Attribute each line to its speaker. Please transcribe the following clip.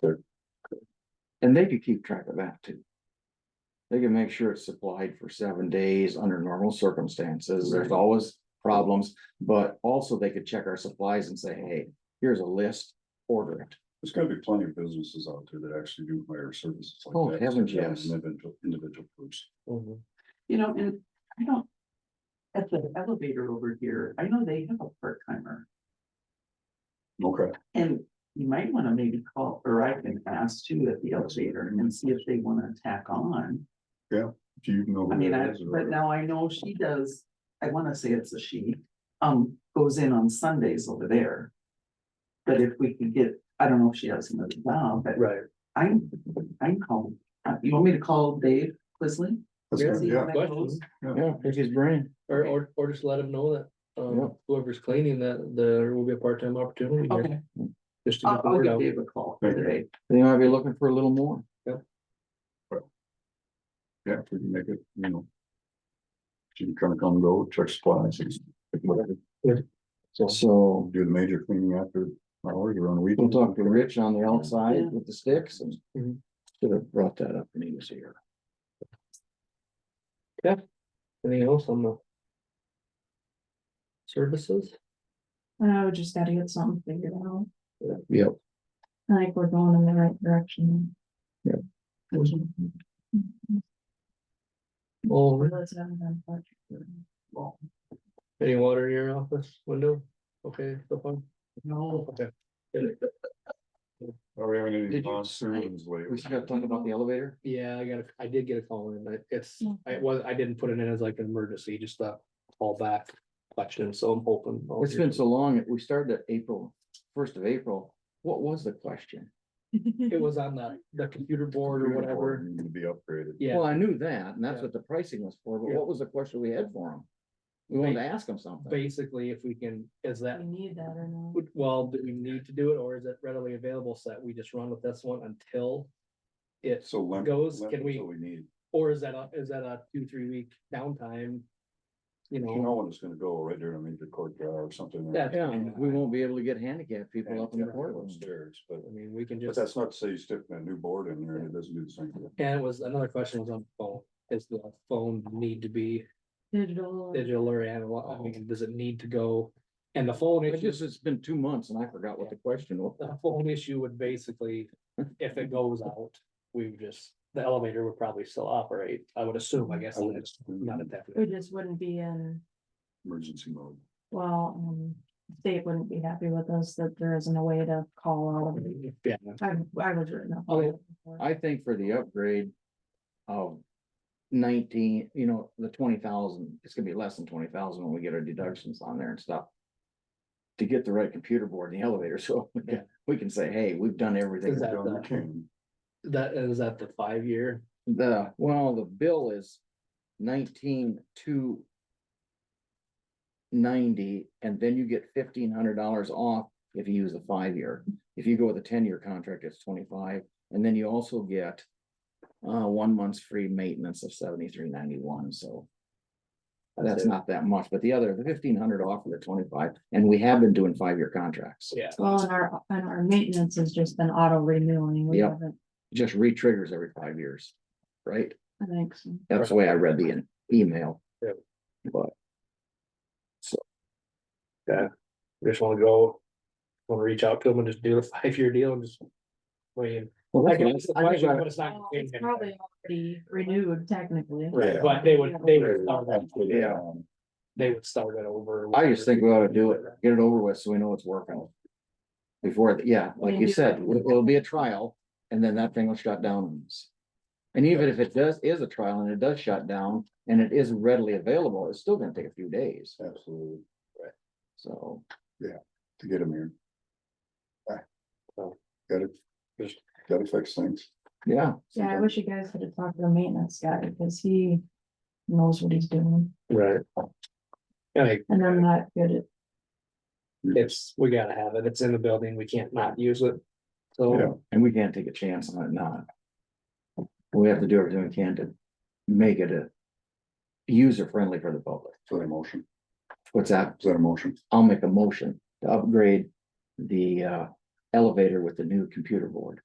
Speaker 1: They're- And they could keep track of that too. They can make sure it's supplied for seven days under normal circumstances. There's
Speaker 2: Right.
Speaker 1: always problems. But also they could check our supplies and say, hey, here's a list, order it.
Speaker 2: There's gotta be plenty of businesses out there that actually do hire services like that.
Speaker 1: Oh, heavens,
Speaker 2: Yeah,
Speaker 1: yes.
Speaker 2: Individual, individual groups.
Speaker 3: You know, and I don't. At the elevator over here, I know they have a part timer
Speaker 2: Okay.
Speaker 3: and you might wanna maybe call, or I can ask too at the elevator and see if they wanna tack on.
Speaker 2: Do you know? who
Speaker 3: I mean,
Speaker 2: that
Speaker 3: I,
Speaker 2: is or-
Speaker 3: but now I know she does, I wanna say it's a she, um, goes in on Sundays over there. But if we could get, I don't know if she has another job, but
Speaker 4: Right.
Speaker 3: I'm, I'm calling, Uh, you want me to call Dave Quisley?
Speaker 2: That's
Speaker 4: Yeah.
Speaker 2: good,
Speaker 3: See
Speaker 2: Yeah,
Speaker 3: how that
Speaker 4: question.
Speaker 3: goes?
Speaker 1: Yeah, pick his brain.
Speaker 4: Or, or, or just let them know that,
Speaker 1: Yeah.
Speaker 4: um, whoever's cleaning that, there will be a part-time opportunity here,
Speaker 3: Okay,
Speaker 4: just to
Speaker 3: I'll,
Speaker 4: get the
Speaker 3: I'll
Speaker 4: word
Speaker 3: give
Speaker 4: out.
Speaker 3: Dave a call today.
Speaker 1: They might be looking for a little more.
Speaker 2: yeah, if we can make it, you know. She can kind of come and go, check supplies, and pick whatever.
Speaker 4: So,
Speaker 1: So
Speaker 2: do the major cleaning after hours or on the
Speaker 1: we'll
Speaker 2: weekend.
Speaker 1: talk to Rich on the
Speaker 3: Yeah.
Speaker 1: outside with the sticks and
Speaker 4: Mhm.
Speaker 1: should have brought that up when he was here.
Speaker 4: anything else on the services?
Speaker 5: Oh, just gotta get something figured out.
Speaker 1: Yep.
Speaker 5: I think we're going in the right direction.
Speaker 4: All,
Speaker 5: Let's have another part.
Speaker 4: any water in your office window? Okay, so far?
Speaker 3: No.
Speaker 4: Okay.
Speaker 2: Are we having any
Speaker 1: Did you-
Speaker 2: monsoons lately?
Speaker 1: We still have talking about the elevator.
Speaker 4: Yeah, I got, a- I did get a call in, but it's,
Speaker 5: Mm.
Speaker 4: I was, I didn't put it in as like an emergency, just a callback question, so I'm hoping. I'll
Speaker 1: It's
Speaker 4: hear
Speaker 1: been so long. We started at April, first of April. What was the question?
Speaker 4: It was on the, the computer board or
Speaker 2: Beautiful,
Speaker 4: whatever,
Speaker 2: Need to be upgraded.
Speaker 1: Well,
Speaker 4: yeah,
Speaker 1: I knew that, and that's
Speaker 4: Yeah.
Speaker 1: what the pricing was for, but
Speaker 4: Yeah.
Speaker 1: what was the question we had for them? We wanted to ask them something.
Speaker 4: basically, if we can, is that
Speaker 5: We need that or not.
Speaker 4: Would- Well, do we need to do it, or is it readily available so that we just run with this one until? It,
Speaker 2: So limp.
Speaker 4: Goes, can we-
Speaker 2: We need,
Speaker 4: or is that a, is that a two, three week downtime? You
Speaker 2: you
Speaker 4: know,
Speaker 2: know when it's gonna go right there, I mean, the court drive or something.
Speaker 4: Yeah,
Speaker 1: Yeah, and we won't be able to get handicapped people up in the courtroom.
Speaker 2: Upstairs, but,
Speaker 4: I mean, we can
Speaker 2: but
Speaker 4: just,
Speaker 2: that's not to say you stick a new board in there and it doesn't do the same thing.
Speaker 4: and it was, another question was on the phone, is the phone need to be
Speaker 5: Digital.
Speaker 4: digital or analog, I mean, does it need to go? And the phone
Speaker 1: It
Speaker 4: issue,
Speaker 1: just, it's been two months and I forgot what the question was.
Speaker 4: the phone issue would basically, if it goes out, we would just, the elevator would probably still operate, I would assume, I guess,
Speaker 2: I would
Speaker 4: I'm just not a
Speaker 5: We
Speaker 4: definite.
Speaker 5: just wouldn't be in,
Speaker 2: Emergency mode.
Speaker 5: well, um, state wouldn't be happy with us that there isn't a way to call out of it.
Speaker 4: Yeah,
Speaker 5: I, I was written up.
Speaker 4: Okay.
Speaker 1: I think for the upgrade of nineteen, you know, the twenty thousand, it's gonna be less than twenty thousand when we get our deductions on there and stuff. To get the right computer board in the elevator, so we can- we can say, hey, we've done everything.
Speaker 4: Is that
Speaker 2: Down the
Speaker 4: the-
Speaker 2: king.
Speaker 4: that, is that the five year?
Speaker 1: The, well, the bill is nineteen two ninety, and then you get fifteen hundred dollars off if you use the five-year. If you go with a ten-year contract, it's twenty-five, and then you also get uh, one month's free maintenance of seventy-three ninety-one, so that's
Speaker 4: it.
Speaker 1: not that much, but the other, the fifteen hundred off of the twenty-five, and we have been doing five-year contracts.
Speaker 4: Yeah,
Speaker 5: Well, and our, and our maintenance has just been auto renewing. We
Speaker 1: Yep.
Speaker 5: haven't,
Speaker 1: It Just re-triggers every five years, right?
Speaker 5: I think so.
Speaker 1: That's the way I read the in- email.
Speaker 4: Yeah.
Speaker 1: But
Speaker 4: we just wanna go, wanna reach out to them and just do the five-year deal and just. Wait,
Speaker 1: Well,
Speaker 4: I
Speaker 1: that's
Speaker 4: can
Speaker 1: what
Speaker 4: ask the
Speaker 1: I- I think
Speaker 4: question,
Speaker 1: I-
Speaker 4: but it's not.
Speaker 5: Well,
Speaker 4: gonna change
Speaker 5: Oh, It's
Speaker 4: anything.
Speaker 5: probably already renewed technically.
Speaker 4: Right,
Speaker 2: Yeah.
Speaker 4: but they would, they would, start that-
Speaker 1: Yeah.
Speaker 2: Um,
Speaker 4: they would start it over.
Speaker 1: I just think we ought to do it, get it over with, so we know it's working. Before, the- yeah, like you said, it- it'll be a trial, and then that thing will shut down. on us. And even if it does, is a trial and it does shut down, and it is readily available, it's still gonna take a few days,
Speaker 2: Absolutely,
Speaker 1: so.
Speaker 2: to get them here. Ah,
Speaker 4: So.
Speaker 2: Gotta,
Speaker 4: Just-
Speaker 2: gotta fix things.
Speaker 1: Yeah,
Speaker 5: Yeah, I wish you guys could have talked to the maintenance guy because he knows what he's doing
Speaker 4: Right. Like,
Speaker 5: and I'm not good at,
Speaker 4: it's, we gotta have it, it's in the building, we can't not use it.
Speaker 2: Yeah.
Speaker 4: So,
Speaker 1: Oh, and we can't take a chance on it not. We have to do everything we can to make it a user friendly for the public.
Speaker 2: Is that a motion?
Speaker 1: What's that?
Speaker 2: Is that a motion?
Speaker 1: I'll make a motion to upgrade the uh elevator with the new computer board.